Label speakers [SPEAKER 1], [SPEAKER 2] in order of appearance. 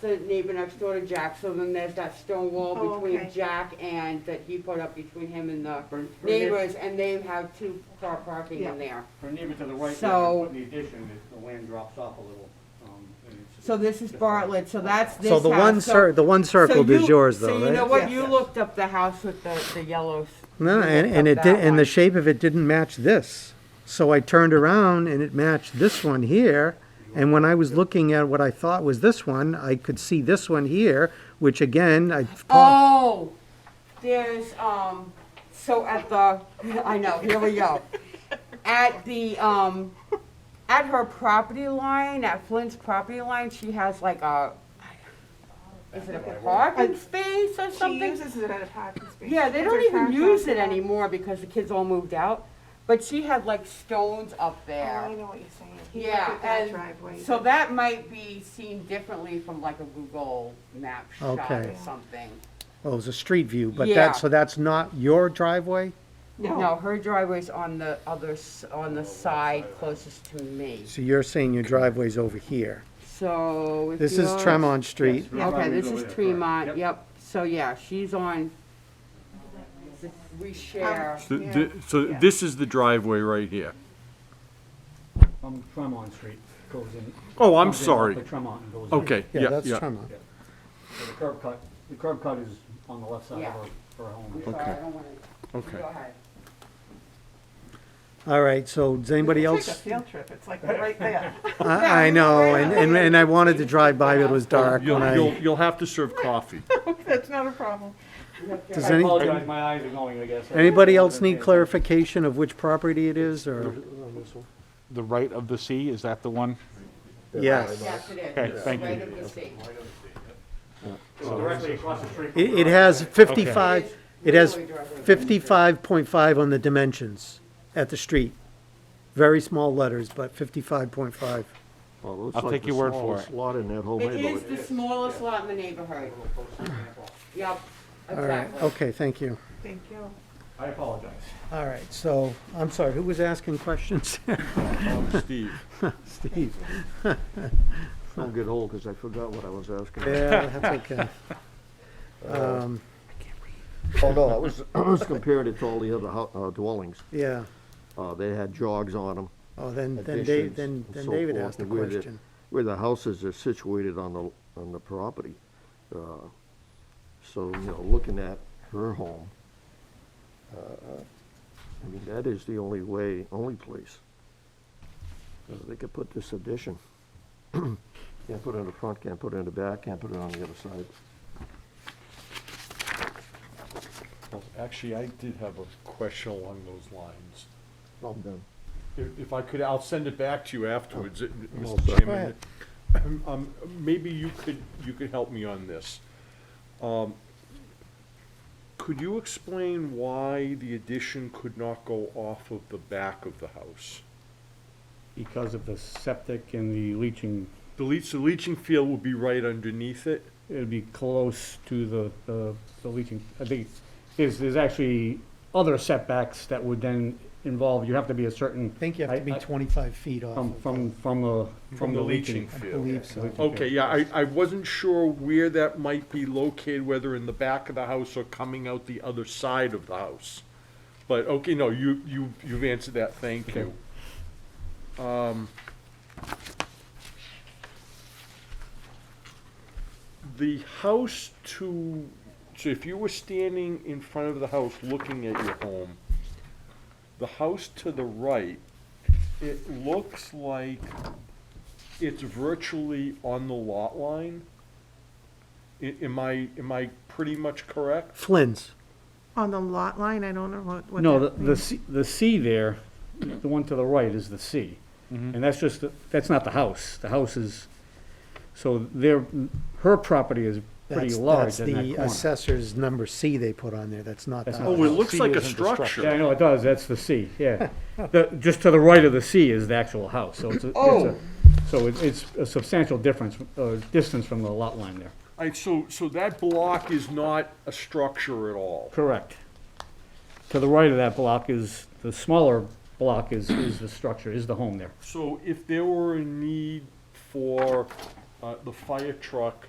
[SPEAKER 1] the neighbor next door to Jack, so then there's that stone wall
[SPEAKER 2] Oh,
[SPEAKER 1] between
[SPEAKER 2] okay.
[SPEAKER 1] Jack and, that he put up between him and the
[SPEAKER 3] Her, her neighbor,
[SPEAKER 1] neighbors, and they have two car parking in there.
[SPEAKER 3] her neighbor to the right, that's
[SPEAKER 1] So-
[SPEAKER 3] putting the addition, it- the land drops off a little. um, and it's-
[SPEAKER 1] So this is Bartlett, so that's this
[SPEAKER 4] So the one
[SPEAKER 1] house, so-
[SPEAKER 4] cir, the one
[SPEAKER 1] so
[SPEAKER 4] circled
[SPEAKER 1] you-
[SPEAKER 4] is yours though,
[SPEAKER 1] So
[SPEAKER 4] right?
[SPEAKER 1] you know what, you
[SPEAKER 2] Yes.
[SPEAKER 1] looked up the house with the, the yellows.
[SPEAKER 4] No, and, and it did, and the shape of it didn't match this. So I turned around and it matched this one here. And when I was looking at what I thought was this one, I could see this one here, which again, I called.
[SPEAKER 1] Oh, there's, um, so at the, I know, here we go. At the, um, at her property line, at Flint's property line, she has like a, is it a parking space or
[SPEAKER 2] She
[SPEAKER 1] something?
[SPEAKER 2] uses it at a parking space.
[SPEAKER 1] Yeah, they
[SPEAKER 2] She puts
[SPEAKER 1] don't
[SPEAKER 2] her
[SPEAKER 1] even
[SPEAKER 2] trash
[SPEAKER 1] use
[SPEAKER 2] out
[SPEAKER 1] it
[SPEAKER 2] there.
[SPEAKER 1] anymore because the kids all moved out. But she had like stones up
[SPEAKER 2] Oh, I
[SPEAKER 1] there.
[SPEAKER 2] know what you're saying. He
[SPEAKER 1] Yeah,
[SPEAKER 2] did that
[SPEAKER 1] and
[SPEAKER 2] driveway. Um,
[SPEAKER 1] So that might be seen differently from like a Google map shot or
[SPEAKER 4] Okay.
[SPEAKER 1] something.
[SPEAKER 4] oh, it was a street view, but
[SPEAKER 1] Yeah.
[SPEAKER 4] that, so that's not your driveway?
[SPEAKER 1] No, her driveway's on the other, s- on the side closest to me.
[SPEAKER 4] So you're saying your driveway's over here.
[SPEAKER 1] So if
[SPEAKER 4] This is
[SPEAKER 1] you're-
[SPEAKER 4] Tremont Street.
[SPEAKER 3] Yes,
[SPEAKER 1] Okay,
[SPEAKER 3] Tremont
[SPEAKER 1] this
[SPEAKER 3] over
[SPEAKER 1] is
[SPEAKER 3] there, correct.
[SPEAKER 1] Tremont, yep. So yeah, she's on, we
[SPEAKER 2] Um,
[SPEAKER 1] share.
[SPEAKER 5] So th- So this is the driveway right here.
[SPEAKER 3] From Tremont Street goes in.
[SPEAKER 5] Oh, I'm
[SPEAKER 3] comes in off
[SPEAKER 5] sorry.
[SPEAKER 3] of Tremont and goes in.
[SPEAKER 5] Okay,
[SPEAKER 4] Yeah,
[SPEAKER 5] yeah,
[SPEAKER 4] that's
[SPEAKER 5] yeah.
[SPEAKER 4] Tremont.
[SPEAKER 3] So The curb cut, the curb cut is on the left side
[SPEAKER 1] Yeah.
[SPEAKER 3] of her, her home.
[SPEAKER 1] Sorry, I
[SPEAKER 5] Okay.
[SPEAKER 1] don't wanna,
[SPEAKER 5] Okay.
[SPEAKER 1] go ahead.
[SPEAKER 4] All right, so does anybody
[SPEAKER 2] It's like a
[SPEAKER 4] else?
[SPEAKER 2] field trip. It's like right there.
[SPEAKER 4] I, I know, and, and, and I wanted to drive by, but it was dark
[SPEAKER 5] You'll,
[SPEAKER 4] when
[SPEAKER 5] you'll,
[SPEAKER 4] I,
[SPEAKER 5] you'll have to serve coffee.
[SPEAKER 2] That's not a problem.
[SPEAKER 4] does
[SPEAKER 3] I
[SPEAKER 4] any,
[SPEAKER 3] apologize, my eyes are going, I guess.
[SPEAKER 4] anybody else need clarification of which property it is, or?
[SPEAKER 6] the right of the sea, is that the one?
[SPEAKER 4] Yes.
[SPEAKER 1] Yes, it is.
[SPEAKER 6] Okay, thank
[SPEAKER 1] Right
[SPEAKER 6] you.
[SPEAKER 1] of the state.
[SPEAKER 3] So Directly across the street. from
[SPEAKER 4] It,
[SPEAKER 3] her
[SPEAKER 4] it has
[SPEAKER 3] driveway.
[SPEAKER 4] fifty-five, it has
[SPEAKER 1] Really driveway.
[SPEAKER 4] fifty-five point five on the dimensions at the street. Very small letters, but fifty-five point five.
[SPEAKER 6] I'll take your word for it.
[SPEAKER 7] Lot in that whole
[SPEAKER 1] It
[SPEAKER 7] neighborhood.
[SPEAKER 1] is the smallest lot in the neighborhood. Yep,
[SPEAKER 4] All right,
[SPEAKER 1] exactly.
[SPEAKER 4] okay, thank you.
[SPEAKER 2] Thank you.
[SPEAKER 3] I apologize.
[SPEAKER 4] All right, so, I'm sorry, who was asking questions?
[SPEAKER 5] Steve,
[SPEAKER 4] Steve.
[SPEAKER 7] Don't get old, because I forgot what I was asking.
[SPEAKER 4] Yeah, that's okay.
[SPEAKER 7] Uh,
[SPEAKER 4] Um,
[SPEAKER 7] Oh, no, I was, I was comparing it to all the other hou- uh, dwellings.
[SPEAKER 4] yeah,
[SPEAKER 7] Uh, They had jogs on them.
[SPEAKER 4] oh, then, then Dave,
[SPEAKER 7] additions,
[SPEAKER 4] then,
[SPEAKER 7] and
[SPEAKER 4] then
[SPEAKER 7] so
[SPEAKER 4] David
[SPEAKER 7] forth,
[SPEAKER 4] asked a
[SPEAKER 7] and where the-
[SPEAKER 4] question.
[SPEAKER 7] Where the houses are situated on the, on the property. Uh, So, you know, looking at her home, uh, I mean, that is the only way, only place. Uh, They could put this addition. Can't put it in the front, can't put it in the back, can't put it on the other side.
[SPEAKER 5] actually, I did have a question along those lines.
[SPEAKER 7] Well done.
[SPEAKER 5] If- If I could, I'll send it back to you afterwards,
[SPEAKER 6] Oh.
[SPEAKER 5] uh,
[SPEAKER 7] Well,
[SPEAKER 5] Mr.
[SPEAKER 7] sir.
[SPEAKER 4] Go
[SPEAKER 5] Chairman.
[SPEAKER 4] ahead.
[SPEAKER 5] Um, um, Maybe you could, you could help me on this. Um, Could you explain why the addition could not go off of the back of the house?
[SPEAKER 8] because of the septic and the leaching,
[SPEAKER 5] The leach, the leaching field would be right underneath it?
[SPEAKER 8] it'd be close to the, the, the leaching, I think, there's, there's actually other setbacks that would then involve, you have to be a certain.
[SPEAKER 4] I think you have to be
[SPEAKER 8] I- I-
[SPEAKER 4] twenty-five feet off
[SPEAKER 8] From,
[SPEAKER 4] of
[SPEAKER 8] from, from the, from the leaching.
[SPEAKER 4] I believe so.
[SPEAKER 5] Okay, yeah, I, I wasn't sure where that might be located, whether in the back of the house or coming out the other side of the house. But, okay, no, you, you, you've answered that, thank you. Um, The house to, so if you were standing in front of the house looking at your home, the house to the right, it looks like it's virtually on the lot line. I- Am I, am I pretty much correct?
[SPEAKER 4] Flynn's.
[SPEAKER 2] On the lot line, I don't know what, what
[SPEAKER 8] No, the,
[SPEAKER 2] that
[SPEAKER 8] the
[SPEAKER 2] means.
[SPEAKER 8] C, the C there, the one to the right is the C. And that's just, the- that's not the house, the house is, so their, her property is pretty
[SPEAKER 4] That's-
[SPEAKER 8] large in
[SPEAKER 4] That's
[SPEAKER 8] that
[SPEAKER 4] the
[SPEAKER 8] corner.
[SPEAKER 4] assessor's number C they put on there, that's not the
[SPEAKER 8] That's
[SPEAKER 4] house.
[SPEAKER 8] not
[SPEAKER 5] Oh, it
[SPEAKER 8] No,
[SPEAKER 5] looks
[SPEAKER 6] C
[SPEAKER 5] like a
[SPEAKER 6] isn't the structure.
[SPEAKER 8] Yeah, I
[SPEAKER 5] structure.
[SPEAKER 8] know, it does, that's the C, yeah. The, just to the right of the C is the actual house, so it's a, it's a, so it- it's a substantial difference, uh, distance from the lot line there.
[SPEAKER 5] I, so, so that block is not a structure at all.
[SPEAKER 8] Correct. To the right of that block is, the smaller block is, is the structure, is the home there.
[SPEAKER 5] So if there were a need for, uh, the fire truck